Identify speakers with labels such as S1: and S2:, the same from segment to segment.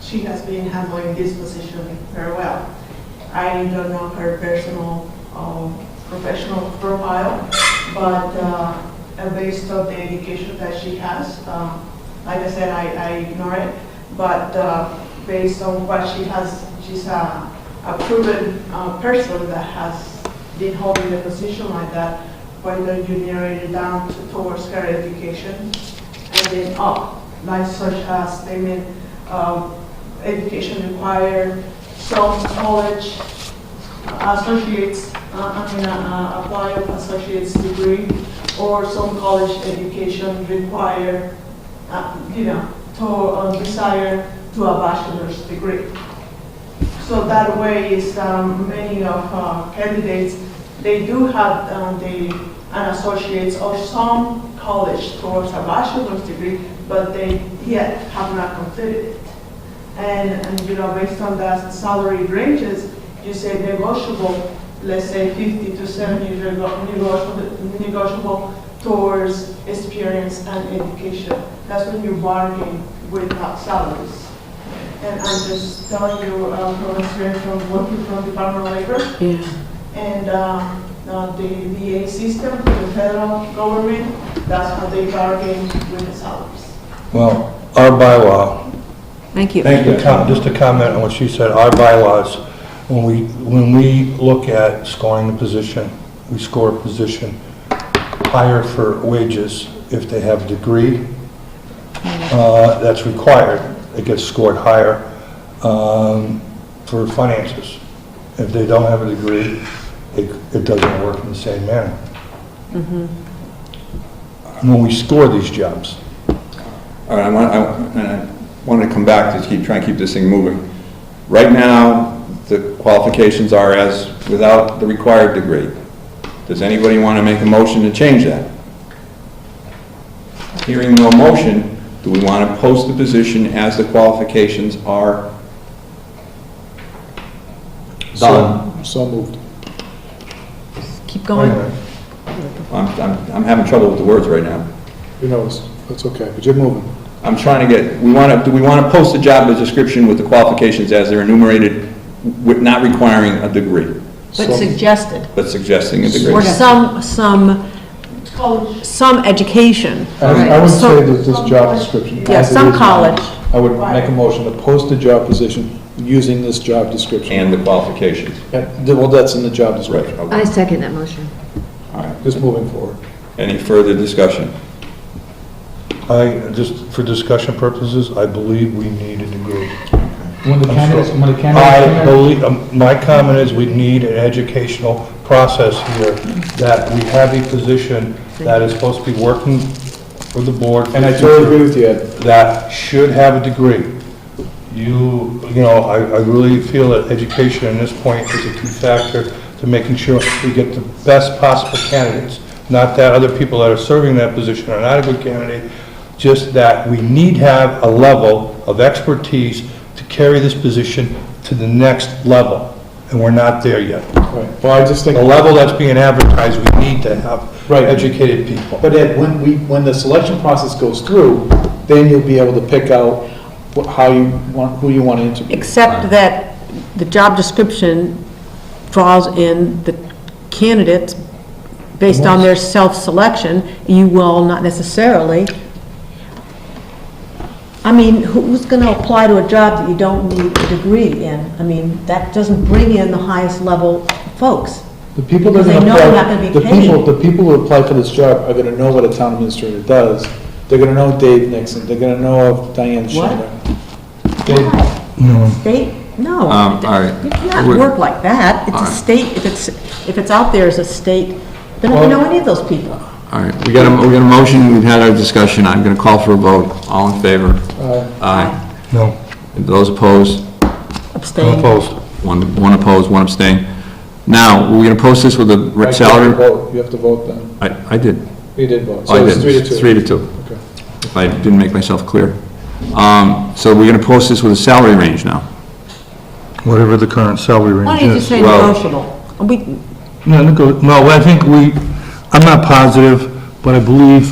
S1: she has been handling this position very well. I don't know her personal or professional profile, but uh, uh, based on the education that she has, um, like I said, I I ignore it, but uh, based on what she has, she's a a proven uh, person that has been holding the position like that, why don't you narrow it down to- towards her education and then up, like such as, I mean, um, education required, some college, associates, uh, I mean, uh, uh, apply of associate's degree, or some college education require, uh, you know, to uh, desire to a bachelor's degree. So that way is um, many of uh, candidates, they do have um, the, an associate's or some college towards a bachelor's degree, but they yet have not completed it. And, and you know, based on the salary ranges, you say negotiable, let's say 50 to 70 is nego- negotiable, negotiable towards experience and education. That's when you bargain with uh, salaries. And I'm just telling you uh, from experience from working from Department of Labor
S2: Yeah,
S1: and uh, uh, the VA system, the federal government, that's how they bargain with the salaries.
S3: Well, our bylaw,
S2: thank you.
S3: just to com- just to comment on what she said, our bylaws, when we, when we look at scoring the position, we score a position higher for wages if they have a degree, uh, that's required, it gets scored higher, um, for finances. If they don't have a degree, it, it doesn't work in the same manner. When we score these jobs.
S4: All right, I want, I, and I wanted to come back to keep, try and keep this thing moving. Right now, the qualifications are as without the required degree. Does anybody want to make a motion to change that? Hearing no motion, do we want to post the position as the qualifications are? Done.
S5: So moved.
S2: Keep
S3: So-
S5: Oh,
S2: going.
S4: I'm, I'm, I'm having trouble with the words right now.
S5: You know, it's, it's okay, but you're moving.
S4: I'm trying to get, we want to, do we want to post the job description with the qualifications as they're enumerated, with not requiring a degree,
S2: But suggested,
S4: but suggesting a degree?
S2: or some, some,
S1: College,
S2: some education.
S5: I I would
S2: So-
S5: say that this job description.
S2: Yeah,
S5: as it
S2: some
S5: is now,
S2: college.
S5: I would make a motion to post the job position using this job description.
S4: And the qualifications.
S5: And, well, that's in the job
S4: Right,
S5: description.
S4: okay,
S6: I second that motion.
S4: all right.
S5: Just moving forward.
S4: Any further discussion?
S3: I, just for discussion purposes, I believe we need a degree.
S7: When the candidates, when the
S3: I
S7: candidates,
S3: believe, um, my comment is we need an educational process here, that we have a position that is supposed to be working for the board.
S5: And I totally agree with you, Ed.
S3: That should have a degree. You, you know, I, I really feel that education at this point is a key factor to making sure we get the best possible candidates. Not that other people that are serving that position are not a good candidate, just that we need have a level of expertise to carry this position to the next level, and we're not there yet.
S5: Right. Well, I just think,
S3: The level that's being advertised, we need to have
S5: Right.
S3: educated people.
S5: but Ed, when we, when the selection process goes through, then you'll be able to pick out wh- how you want, who you want to interview.
S2: Except that the job description draws in the candidates based on their self-selection. You will not necessarily, I mean, who's going to apply to a job that you don't need a degree in? I mean, that doesn't bring in the highest level folks.
S5: The people that are
S2: Because they
S5: going to
S2: know
S5: apply.
S2: they're not gonna be
S5: the people-
S2: paid.
S5: The people who apply for this job are going to know what a town administrator does. They're going to know Dave Nixon, they're going to know of Diane Schindler. They- Mm.
S2: State, no.
S4: Um, all right.
S2: You cannot work like that. It's a state, if it's, if it's out there as a state, then I don't know any of those people.
S4: All right, we got a, we got a motion, we've had our discussion, I'm going to call for a vote. All in favor? Aye.
S3: No,
S4: Those opposed?
S3: I'm
S2: Abstain.
S3: opposed.
S4: One, one opposed, one abstained. Now, we're going to post this with a
S5: Right, You have
S4: salary?
S5: to vote, you have to vote then.
S4: I, I did.
S5: You did vote. So
S4: Oh, I
S5: it's
S4: did.
S5: three to two.
S4: Three to two.
S5: Okay.
S4: If I didn't make myself clear. Um, so we're going to post this with a salary range now.
S3: Whatever the current salary range is.
S2: Why don't you just say
S4: Well-
S2: negotiable? We,
S3: No, nego- no, I think we, I'm not positive, but I believe,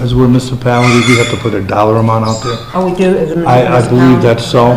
S3: as we're a municipality, we have to put a dollar amount out there.
S2: oh, we do as a
S3: I, I believe
S2: municipality.
S3: that's so.